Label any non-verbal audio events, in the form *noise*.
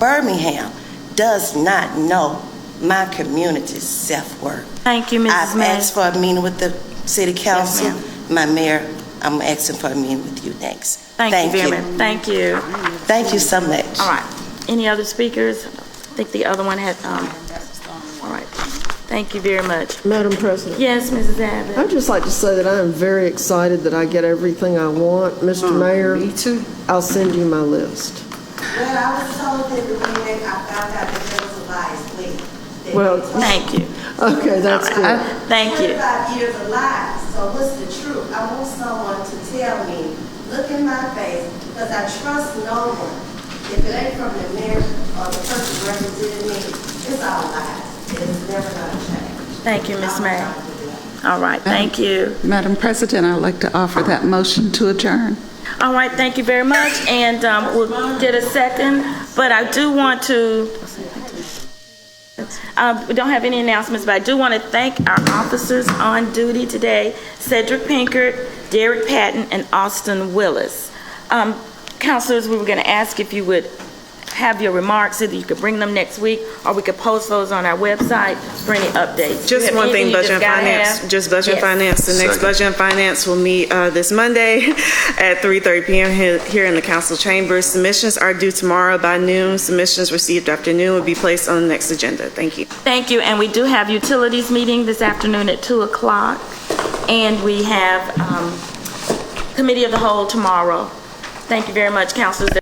Birmingham does not know my community's self-worth. Thank you, Mrs. I've May. asked for a meeting with the city council. ma'am. My mayor, I'm asking for a meeting with you next. Thank you very much. Thank you. Thank you so much. All right. Any other speakers? I think the other one had, um, all right. Thank you very much. Madam President, Yes, Mrs. Abbott? I'd just like to say that I am very excited that I get everything I want. Mr. Mayor? Oh, Me too. I'll send you my list. Well, I was told that the meeting, I found out that there was a lie, please. That Well, they told Thank you. Okay, that's good. Thank you. Twenty-five years of lies, so what's the truth? I want someone to tell me, look in my face, because I trust no one. If it ain't from the mayor or the person representing me, it's all lies. It's never gonna change. Thank you, Miss I'm May. not gonna do that. All right, thank you. Madam President, I'd like to offer that motion to adjourn. All right, thank you very much, and um, we'll get a second, but I do want to, Uh, we don't have any announcements, but I do want to thank our officers on duty today, Cedric Pinkert, Derek Patton, and Austin Willis. Um, Counselors, we were going to ask if you would have your remarks, either you could bring them next week, or we could post those on our website for any updates. You Just have one anything thing, you Budget and gotta Finance, have? just Budget and Yes. Finance, the next Budget and Finance will meet uh, this Monday *laughs* at 3:30 PM he- here in the council chambers. Submissions are due tomorrow by noon. Submissions received after noon will be placed on the next agenda. Thank you. Thank you, and we do have utilities meeting this afternoon at 2 o'clock, and we have um, Committee of the Whole tomorrow. Thank you very much, councilors.